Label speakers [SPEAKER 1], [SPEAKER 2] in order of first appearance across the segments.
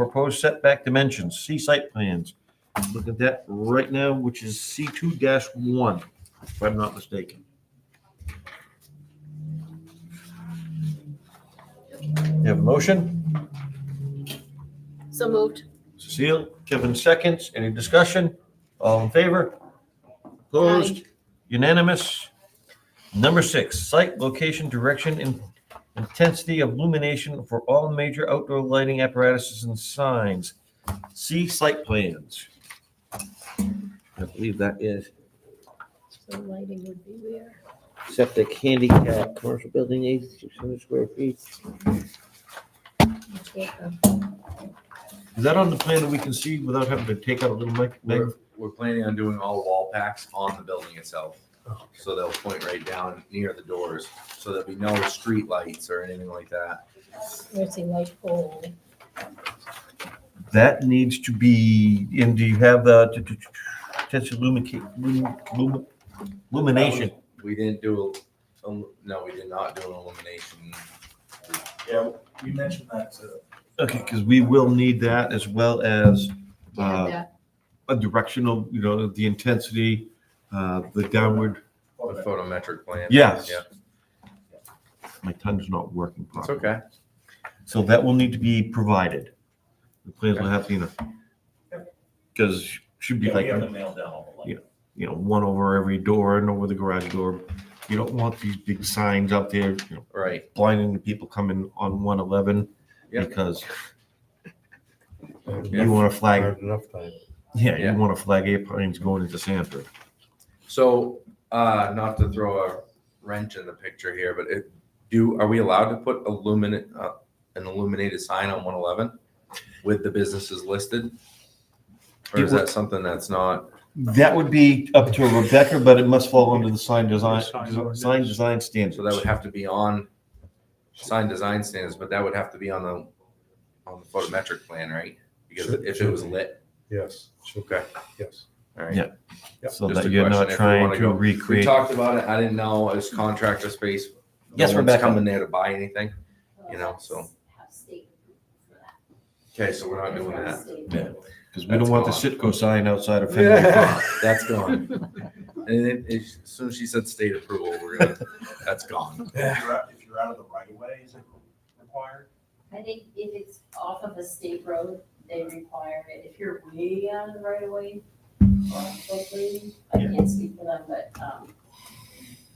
[SPEAKER 1] proposed setback dimensions, C site plans. Look at that right now, which is C two one, if I'm not mistaken. You have a motion?
[SPEAKER 2] So moved.
[SPEAKER 1] Cecile, Kevin seconds. Any discussion? All in favor? Opposed? Unanimous. Number six, site location, direction, and intensity of illumination for all major outdoor lighting apparatuses and signs. See site plans. I believe that is
[SPEAKER 2] So lighting would be where?
[SPEAKER 1] septic handicap, commercial building, 8,600 square feet.
[SPEAKER 2] uh,
[SPEAKER 1] Is that on the plan that we can see without having to take out a little mic? mic?
[SPEAKER 3] We're, we're planning on doing all wall packs on the building itself. So they'll point right down near the doors, so there'll be no street lights or anything like that.
[SPEAKER 2] Where's the light pole?
[SPEAKER 1] That needs to be, and do you have the t- t- t- potential lumica- lum- lum- lumination?
[SPEAKER 3] We didn't do, a- um, no, we did not do an illumination.
[SPEAKER 4] Yeah, we mentioned that to.
[SPEAKER 1] Okay, because we will need that as well as
[SPEAKER 2] Do you have
[SPEAKER 1] Uh,
[SPEAKER 2] that?
[SPEAKER 1] a directional, you know, the intensity, uh, the downward.
[SPEAKER 3] The photometric plan.
[SPEAKER 1] Yes.
[SPEAKER 3] Yeah,
[SPEAKER 1] My tongue's not working
[SPEAKER 3] it's
[SPEAKER 1] properly.
[SPEAKER 3] okay.
[SPEAKER 1] So that will need to be provided. The plans will have to, you know, because should be
[SPEAKER 4] Yeah,
[SPEAKER 1] like, "Oh."
[SPEAKER 4] we have to mail down all the
[SPEAKER 1] Yeah.
[SPEAKER 4] light.
[SPEAKER 1] you know, one over every door and over the garage door. You don't want these big signs out there, you know,
[SPEAKER 3] Right,
[SPEAKER 1] blinding the people coming on 111
[SPEAKER 3] Yeah.
[SPEAKER 1] because
[SPEAKER 3] Yeah.
[SPEAKER 1] you want to flag
[SPEAKER 5] Enough time.
[SPEAKER 1] Yeah,
[SPEAKER 3] Yeah.
[SPEAKER 1] you want to flag airplanes going into Sanford.
[SPEAKER 3] so, uh, not to throw a wrench in the picture here, but it, do, are we allowed to put illuminate, uh, an illuminated sign on one eleven? With the businesses listed? Or is that something that's not?
[SPEAKER 1] That would be up to Rebecca, but it must fall under the sign design,
[SPEAKER 5] Sign
[SPEAKER 1] design-
[SPEAKER 5] ordinance.
[SPEAKER 1] sign design standards.
[SPEAKER 3] So that would have to be on sign design standards, but that would have to be on the, on the photometric plan, right? Because if it was lit,
[SPEAKER 5] Yes,
[SPEAKER 3] okay,
[SPEAKER 5] yes.
[SPEAKER 3] all right.
[SPEAKER 1] Yeah. So
[SPEAKER 3] Just
[SPEAKER 1] that
[SPEAKER 3] a
[SPEAKER 1] you're
[SPEAKER 3] question
[SPEAKER 1] not
[SPEAKER 3] if we
[SPEAKER 1] trying
[SPEAKER 3] wanna
[SPEAKER 1] to
[SPEAKER 3] go- We
[SPEAKER 1] recreate.
[SPEAKER 3] talked about it, I didn't know, it was contractor space. No
[SPEAKER 1] Yes,
[SPEAKER 3] one's
[SPEAKER 1] Rebecca.
[SPEAKER 3] Coming there to buy anything, you know, so,
[SPEAKER 6] have state for that.
[SPEAKER 3] okay, so we're not doing that,
[SPEAKER 6] State.
[SPEAKER 1] Yeah, because we don't
[SPEAKER 3] That's
[SPEAKER 1] want the
[SPEAKER 3] gone.
[SPEAKER 1] Sitco sign outside of Fenway Park.
[SPEAKER 3] that's gone. And then, as soon as she said state approval, we're gonna, that's gone.
[SPEAKER 4] If you're out- if you're out of the right of way, is it required?
[SPEAKER 6] I think if it's off of a state road, they require it. If you're way out of the right of way, hopefully, I
[SPEAKER 1] Yeah.
[SPEAKER 6] can't speak for them, but, um,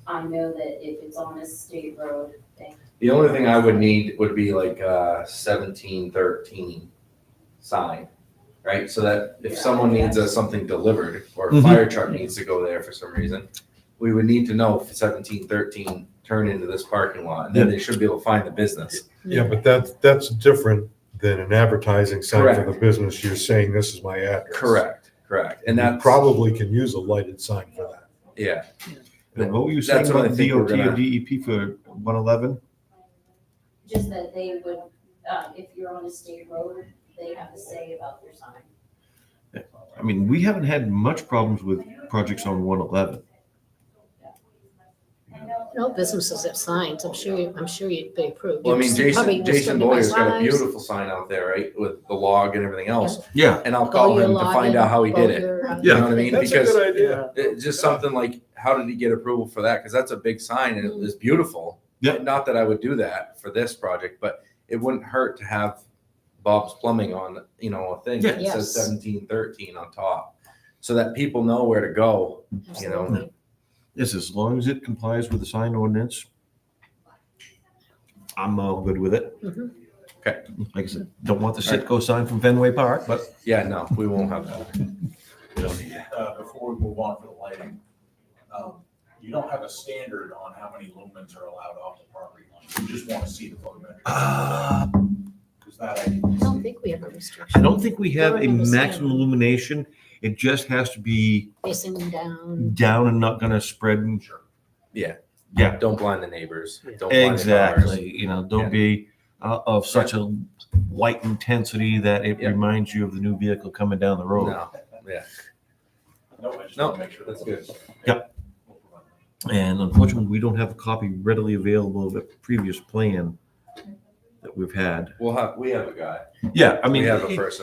[SPEAKER 6] I know that if it's on a state road, they,
[SPEAKER 3] The only thing I would need would be like uh seventeen thirteen sign, right? So that if
[SPEAKER 6] Yeah,
[SPEAKER 3] someone needs
[SPEAKER 6] yeah.
[SPEAKER 3] us something delivered or a
[SPEAKER 1] Mhm.
[SPEAKER 3] fire truck needs to go there for some reason, we would need to know if seventeen thirteen turned into this parking lot, and then they should be able to find the business.
[SPEAKER 5] Yeah, but that's, that's different than an advertising sign for the
[SPEAKER 3] Correct.
[SPEAKER 5] business. You're saying this is my address.
[SPEAKER 3] Correct, correct, and
[SPEAKER 5] And that
[SPEAKER 3] that's
[SPEAKER 5] probably can use a lighted sign for that.
[SPEAKER 3] yeah.
[SPEAKER 1] And What were you
[SPEAKER 3] That's
[SPEAKER 1] saying
[SPEAKER 3] what I
[SPEAKER 1] about
[SPEAKER 3] think we're
[SPEAKER 1] DOT or
[SPEAKER 3] gonna-
[SPEAKER 1] DEP for one eleven?
[SPEAKER 6] just that they would, um, if you're on a state road, they have to say about their sign.
[SPEAKER 1] I mean, we haven't had much problems with projects on one eleven.
[SPEAKER 2] No businesses have signs. I'm sure, you- I'm sure you'd be approved.
[SPEAKER 3] Well, I mean,
[SPEAKER 2] You'd probably
[SPEAKER 3] Jason Jason
[SPEAKER 2] distribute my
[SPEAKER 3] Boyer's got a
[SPEAKER 2] signs,
[SPEAKER 3] beautiful sign out there, right, with the log and everything else,
[SPEAKER 1] Yeah.
[SPEAKER 3] and I'll
[SPEAKER 2] with all
[SPEAKER 3] call
[SPEAKER 2] Oh, your
[SPEAKER 3] him to find
[SPEAKER 2] login,
[SPEAKER 3] out how he
[SPEAKER 2] all
[SPEAKER 3] did it.
[SPEAKER 2] your, uh,
[SPEAKER 3] You know what I mean?
[SPEAKER 5] That's a
[SPEAKER 3] Because-
[SPEAKER 5] good idea.
[SPEAKER 3] It- just something like, how did he get approval for that? Because that's a big sign and it
[SPEAKER 2] Mm.
[SPEAKER 3] was beautiful.
[SPEAKER 1] Yeah.
[SPEAKER 3] Not that I would do that for this project, but it wouldn't hurt to have Bob's Plumbing on, you know, a thing that
[SPEAKER 2] Yeah.
[SPEAKER 3] says
[SPEAKER 2] Yes.
[SPEAKER 3] seventeen thirteen on top. So that people know where to go.
[SPEAKER 2] absolutely.
[SPEAKER 1] Yes, as long as it complies with the sign ordinance. I'm all good with it.
[SPEAKER 2] Mhm.
[SPEAKER 3] Okay.
[SPEAKER 1] Like I said, don't want the Sitco sign from Fenway Park, but
[SPEAKER 3] Yeah, no, we won't have that.
[SPEAKER 4] Uh, before we move on for the lighting, um, you don't have a standard on how many lumens are allowed off the property line. You just want to see the photometric.
[SPEAKER 3] Ah.
[SPEAKER 1] Ah.
[SPEAKER 4] Because that I
[SPEAKER 2] I
[SPEAKER 4] didn't
[SPEAKER 2] don't
[SPEAKER 4] see.
[SPEAKER 2] think we have a
[SPEAKER 1] I
[SPEAKER 2] restriction.
[SPEAKER 1] don't think we have a
[SPEAKER 2] Don't understand.
[SPEAKER 1] maximum illumination. It just has to be
[SPEAKER 2] Facing them down.
[SPEAKER 1] down and not gonna spread. and-
[SPEAKER 4] Sure.
[SPEAKER 3] Yeah.
[SPEAKER 1] Yeah,
[SPEAKER 3] Don't blind the neighbors. Don't blind the cars.
[SPEAKER 1] exactly. You know, don't be uh, of such a light intensity that it
[SPEAKER 3] Yeah.
[SPEAKER 1] reminds you of the new vehicle coming down the road.
[SPEAKER 3] No, yeah.
[SPEAKER 4] No, I just
[SPEAKER 3] No,
[SPEAKER 4] want to make sure.
[SPEAKER 3] that's good.
[SPEAKER 1] Yep. And unfortunately, we don't have a copy readily available of the previous plan. that we've had.
[SPEAKER 3] We'll have, we have a guy.
[SPEAKER 1] Yeah, I mean.
[SPEAKER 3] We have a
[SPEAKER 1] it-
[SPEAKER 3] person.